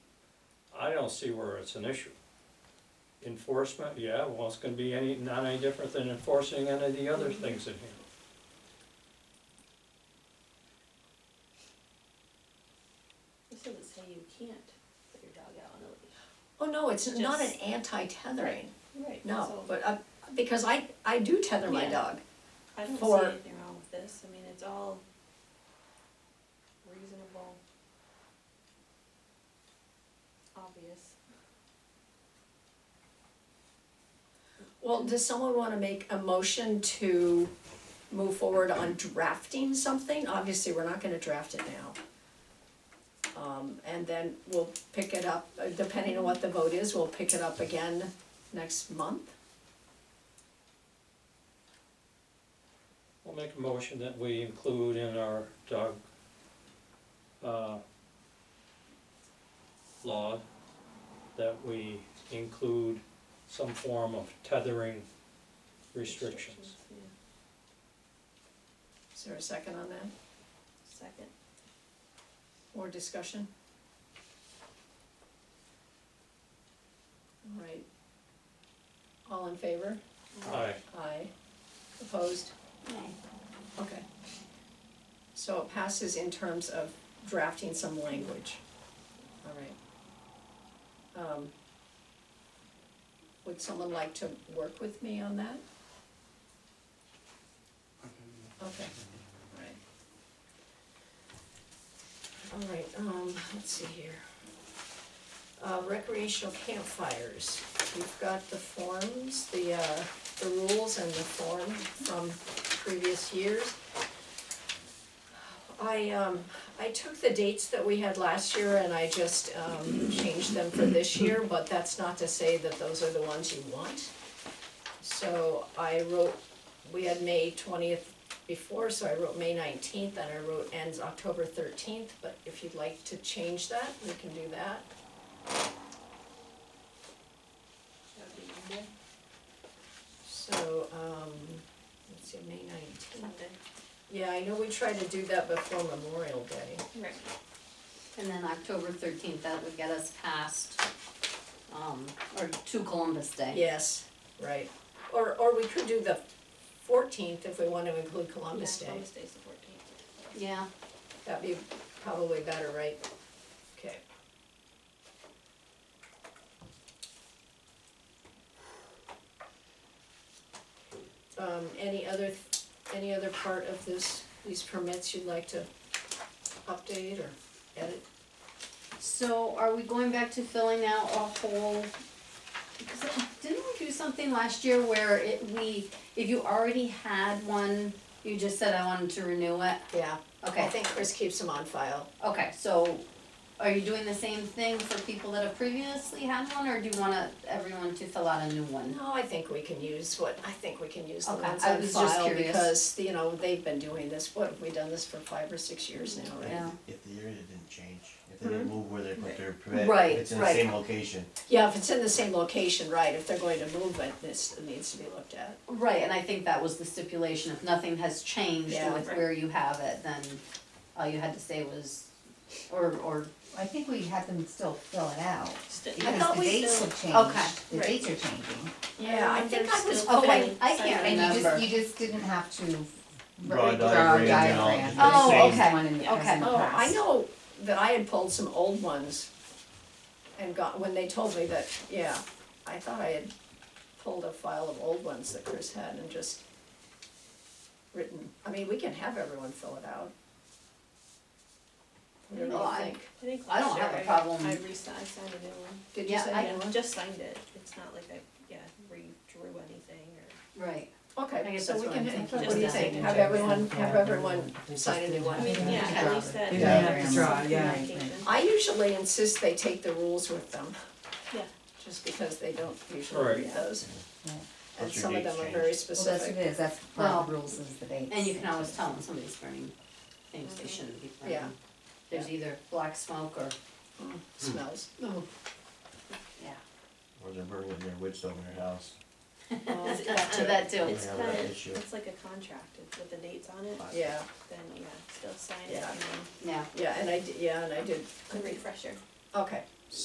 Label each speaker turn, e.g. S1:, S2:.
S1: I don't see where it's an issue. Enforcement, yeah, well, it's gonna be any, not any different than enforcing any of the other things in here.
S2: This doesn't say you can't put your dog out on a
S3: Oh, no, it's not an
S2: Just-
S3: anti-tethering,
S2: leash. Right.
S3: no,
S2: So
S3: but, uh, because I, I do tether my
S2: Yeah.
S3: dog.
S2: I don't
S3: for-
S2: see anything wrong with this, I mean, it's all reasonable. Obvious.
S3: Well, does someone wanna make a motion to move forward on drafting something? Obviously, we're not gonna draft it now. Um, and then we'll pick it up, uh, depending on what the vote is, we'll pick it up again next month.
S1: We'll make a motion that we include in our dog, uh, law, that we include some form of tethering restrictions.
S2: Yeah,
S3: Is there a second on that?
S2: second.
S3: More discussion? All right. All in favor?
S1: Aye.
S3: Aye. Opposed? Okay. So it passes in terms of drafting some language. All right. Um, Would someone like to work with me on that? Okay, all right. All right, um, let's see here. Uh, recreational campfires, we've got the forms, the, uh, the rules and the form from previous years. I, um, I took the dates that we had last year and I just, um, changed them for this year, but that's not to say that those are the ones you want. So I wrote, we had May twentieth before, so I wrote May nineteenth and I wrote ends October thirteenth, but if you'd like to change that, we can do that.
S2: That would be Monday,
S3: So, um, let's see, May nineteenth.
S2: Sunday.
S3: Yeah, I know we tried to do that before Memorial Day.
S2: Right.
S4: And then October thirteenth, that would get us past, um, or to Columbus Day.
S3: Yes, right. Or, or we could do the fourteenth if we want to include Columbus
S2: Yeah,
S3: Day.
S2: Columbus Day's the fourteenth.
S4: Yeah,
S3: That'd be probably better, right? Okay. Um, any other, any other part of this, these permits you'd like to update or edit?
S4: so are we going back to filling out a whole? Because didn't we do something last year where it, we, if you already had one, you just said I wanted to renew it?
S3: Yeah, I
S4: Okay,
S3: think Chris keeps them on file.
S4: okay, so are you doing the same thing for people that have previously had one, or do you wanna, everyone to fill out a new one?
S3: No, I think we can use what, I think we can use the
S4: Okay,
S3: ones
S4: I
S3: on
S4: was just
S3: file
S4: curious.
S3: because, you know, they've been doing this, what, have we done this for five or six years now, right?
S4: Yeah. Mm-hmm.
S5: If the area didn't change, if they didn't move where they put their permit,
S4: Right,
S5: if it's in the
S4: right.
S5: same location.
S3: Yeah, if it's in the same location, right, if they're going to move it, this needs to be looked at.
S4: Right, and I think that was the stipulation, if nothing has changed
S3: Yeah.
S4: with where you have it, then all you had to say was, or, or,
S6: I think we had them still fill it out,
S4: thought
S6: because the
S4: we
S6: dates
S2: still-
S6: have
S4: Okay.
S6: changed, the
S2: Right.
S6: dates are changing.
S3: Yeah, I think I was
S4: still-
S3: putting,
S4: Okay. I can't
S6: And you
S4: Remember.
S6: just, you just didn't have to
S5: Draw a diagram,
S6: re- Draw a
S5: you know,
S6: diagram,
S5: just
S6: but
S4: the
S6: it's
S4: same.
S6: the one in the
S4: Oh, Okay.
S6: present
S3: oh, I
S6: past.
S3: know that I had pulled some old ones and got, when they told me that, yeah, I thought I had pulled a file of old ones that Chris had and just written, I mean, we can have everyone fill it out. What do you
S4: No, I-
S3: think?
S2: I think
S4: I don't
S2: last year
S4: have a
S2: I-
S4: problem.
S2: I resigned, I signed a new one.
S3: Did you
S4: Yeah,
S3: say
S4: I-
S3: that one?
S2: Just signed it, it's not like I, yeah, redrew anything or.
S4: right, I
S3: Okay,
S4: guess
S3: so
S4: that's
S3: we
S4: what
S3: can,
S4: I'm
S3: have-
S4: thinking,
S3: what
S2: just
S3: do you
S2: that
S3: think,
S2: signature.
S3: have everyone, have everyone sign a new one?
S2: I mean, yeah, at least that.
S6: You
S5: may have to
S2: there's
S6: draw,
S2: some
S6: yeah, I
S2: communication.
S6: think.
S3: I usually insist they take the rules with them.
S2: Yeah.
S3: Just because they don't usually read
S1: Right.
S3: those.
S6: Right.
S3: And
S5: What's your
S3: some of
S5: date
S3: them are
S5: change?
S3: very
S6: Well, that's what
S3: specific.
S6: it is, that's part of the
S4: Well,
S6: rules is the dates.
S4: and you can always tell when somebody's burning things they shouldn't be burning.
S3: Mm-hmm. Yeah.
S4: There's either black smoke or,
S3: Mm, Smells.
S4: yeah,
S5: Or they're burning their witch over their house.
S3: Oh,
S4: that too, that too.
S2: It's
S5: Yeah, that
S2: kind of,
S5: issue.
S2: it's like a contract it's with the dates on it,
S3: Yeah,
S2: then yeah, still sign it
S3: Yeah.
S2: and
S4: yeah,
S3: yeah, and I, did. yeah, and I did,
S2: then a refresher.
S3: okay,